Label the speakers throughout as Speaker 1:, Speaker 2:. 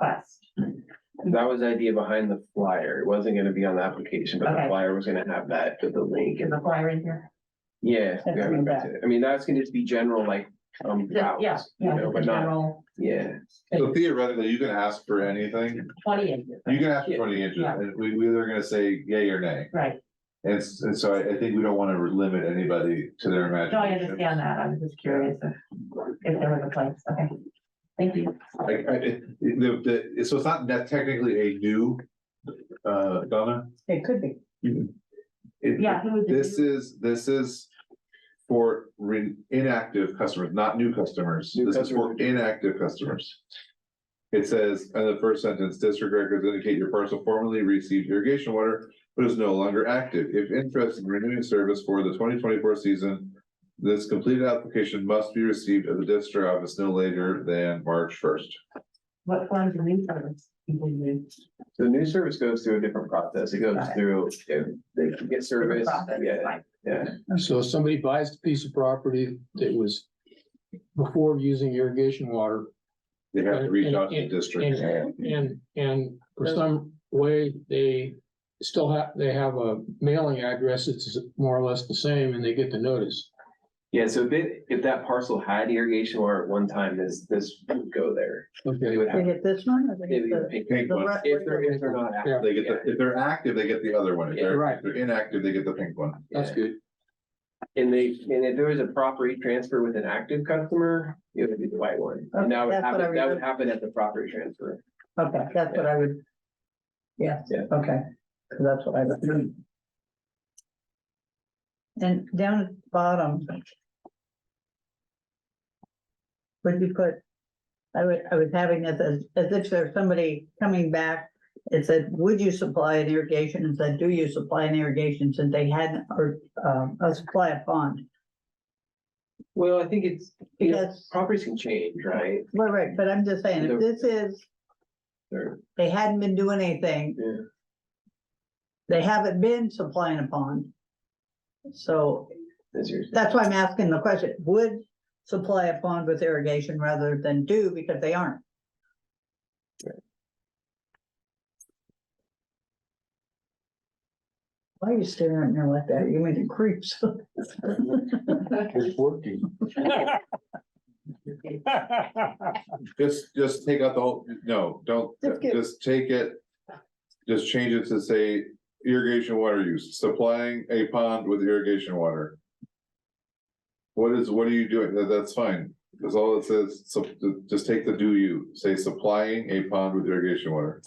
Speaker 1: request.
Speaker 2: That was the idea behind the flyer. It wasn't gonna be on the application, but the
Speaker 1: Okay.
Speaker 2: flyer was gonna have that with the link
Speaker 1: Is
Speaker 2: and,
Speaker 1: the flyer in here?
Speaker 2: yeah.
Speaker 1: That's
Speaker 2: yeah,
Speaker 1: in
Speaker 2: that's
Speaker 1: that.
Speaker 2: it. I mean, that's gonna just be general, like, um,
Speaker 1: Yeah, yeah,
Speaker 2: routes, you know,
Speaker 1: the
Speaker 2: but not,
Speaker 1: general
Speaker 2: yeah.
Speaker 3: So theoretically, you can ask for anything,
Speaker 1: twenty acres,
Speaker 3: you can ask for twenty inches, and we, we are gonna say yay or nay.
Speaker 1: right?
Speaker 3: And, s- and so I, I think we don't wanna limit anybody to their
Speaker 1: No, I
Speaker 3: imagination.
Speaker 1: understand that. I was just curious if, if there was a place. Okay. Thank you.
Speaker 3: Like, I, it- the, the, so it's not that technically a new, uh, Donna?
Speaker 4: It could be.
Speaker 3: It-
Speaker 1: Yeah, who was
Speaker 3: This
Speaker 1: it?
Speaker 3: is, this is for re- inactive customers, not new customers.
Speaker 2: New
Speaker 3: This is for
Speaker 2: customers.
Speaker 3: inactive customers. It says, in the first sentence, district records indicate your parcel formerly received irrigation water, but is no longer active. If interested in renewing service for the twenty twenty-four season, this completed application must be received at the district office no later than March first.
Speaker 1: What forms of lease service people use?
Speaker 2: The new service goes through a different process. It goes
Speaker 1: Got it.
Speaker 2: through, yeah, they can get service,
Speaker 1: Profit,
Speaker 2: yeah,
Speaker 1: like,
Speaker 2: yeah.
Speaker 5: So if somebody buys a piece of property that was before using irrigation water
Speaker 3: They have to reach out to the
Speaker 5: And-
Speaker 3: district.
Speaker 5: and, and, and for some way, they still have, they have a mailing address that's more or less the same and they get the notice.
Speaker 2: Yeah, so if it, if that parcel had irrigation water at one time, this, this would go there. They
Speaker 5: Okay,
Speaker 2: would
Speaker 4: They
Speaker 2: have.
Speaker 4: hit this one or they
Speaker 2: they
Speaker 4: hit
Speaker 2: would
Speaker 4: the?
Speaker 2: pick-
Speaker 3: Pink
Speaker 4: the
Speaker 3: one.
Speaker 4: red-
Speaker 2: If they're, if they're not. active,
Speaker 3: They get, the- if they're active, they get the other one. If
Speaker 2: Yeah,
Speaker 3: they're,
Speaker 5: right.
Speaker 3: if they're inactive, they get the pink one.
Speaker 2: yeah.
Speaker 5: that's good.
Speaker 2: And they, and if there was a property transfer with an active customer, it would be the white one. And that would
Speaker 4: That's what I
Speaker 2: happen, that would
Speaker 4: remember.
Speaker 2: happen at the property transfer.
Speaker 4: Okay, that's what I would. Yeah,
Speaker 2: Yeah.
Speaker 4: okay, 'cause that's what I. would- And down at the bottom. Would you put? I would, I was having this as, as if there's somebody coming back. It said, would you supply an irrigation? And said, do you supply an irrigation? Since they hadn't, or, um, a supply of pond.
Speaker 2: Well, I think it's, you know,
Speaker 4: Because-
Speaker 2: properties can change, right?
Speaker 4: Right, right, but I'm just saying, if this is,
Speaker 2: Or-
Speaker 4: they hadn't been doing anything.
Speaker 2: Yeah.
Speaker 4: They haven't been supplying a pond. So
Speaker 2: that's yours.
Speaker 4: that's why I'm asking the question, would supply a pond with irrigation rather than do, because they aren't. Why are you staring at me like that? You making creeps.
Speaker 5: It's working.
Speaker 3: Just, just take out the whole, no, don't,
Speaker 4: Just get-
Speaker 3: just take it. Just change it to say irrigation water use, supplying a pond with irrigation water. What is, what are you doing? That, that's fine. That's all it says. So just take the do you, say supplying a pond with irrigation water.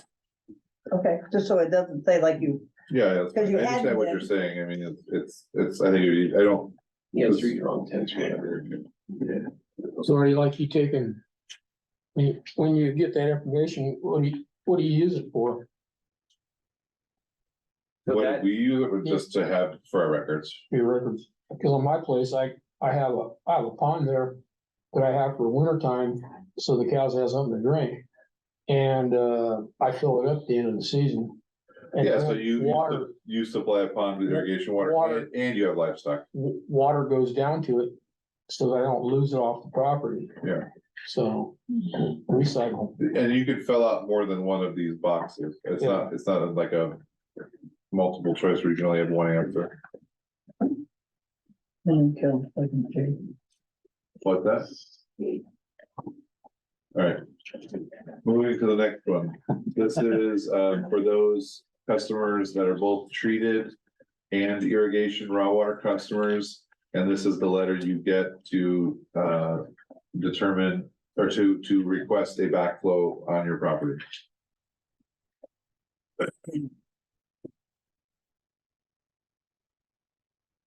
Speaker 4: Okay, just so it doesn't say like you
Speaker 3: Yeah, that's- I
Speaker 4: Because you
Speaker 3: understand
Speaker 4: hadn't
Speaker 3: what
Speaker 4: been.
Speaker 3: you're saying. I mean, it's- it's, it's, I think, you- I don't.
Speaker 2: Yeah, it's
Speaker 3: Yes.
Speaker 2: three wrong tense, whatever. Yeah.
Speaker 5: So are you like you taking, when you, when you get that information, what do you, what do you use it for?
Speaker 2: So
Speaker 3: What
Speaker 2: that,
Speaker 3: we use it with just to have for our records.
Speaker 5: your records. Because on my place, I, I have a, I have a pond there that I have for winter time, so the cows have something to drink. And, uh, I fill it up at the end of the season. And
Speaker 3: Yeah, so
Speaker 5: then
Speaker 3: you, you
Speaker 5: Water,
Speaker 3: sup- you supply a pond with
Speaker 5: Wa-
Speaker 3: irrigation water
Speaker 5: water.
Speaker 3: and- and you have livestock.
Speaker 5: w- water goes down to it, so that I don't lose it off the property.
Speaker 3: Yeah.
Speaker 5: So, recycle.
Speaker 3: And you could fill out more than one of these boxes. It's
Speaker 5: Yeah.
Speaker 3: not, it's not like a multiple choice where you can only have one answer.
Speaker 4: Then kill, like, okay.
Speaker 3: Like that? All right. Moving to the next one. This is, uh, for those customers that are both treated and irrigation raw water customers. And this is the letter you get to, uh, determine or to, to request a backflow on your property.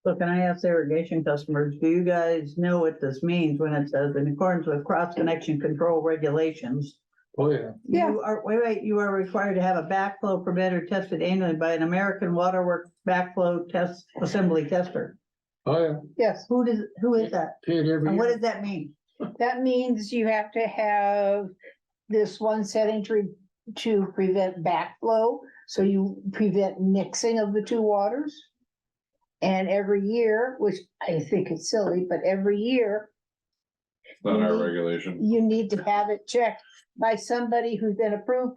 Speaker 4: So can I ask the irrigation customers, do you guys know what this means when it says in accordance with cross connection control regulations?
Speaker 5: Oh, yeah.
Speaker 4: Yeah. You are, wait, wait, you are required to have a backflow preventer tested annually by an American Waterworks backflow test assembly tester.
Speaker 5: Oh, yeah.
Speaker 6: Yes,
Speaker 4: Who does, who is that?
Speaker 5: Paid every
Speaker 4: And what
Speaker 5: year.
Speaker 4: does that mean?
Speaker 6: that means you have to have this one setting to, re- to prevent backflow. So you prevent mixing of the two waters. And every year, which I think is silly, but every year
Speaker 3: Not our regulation.
Speaker 6: you need to have it checked by somebody who's been approved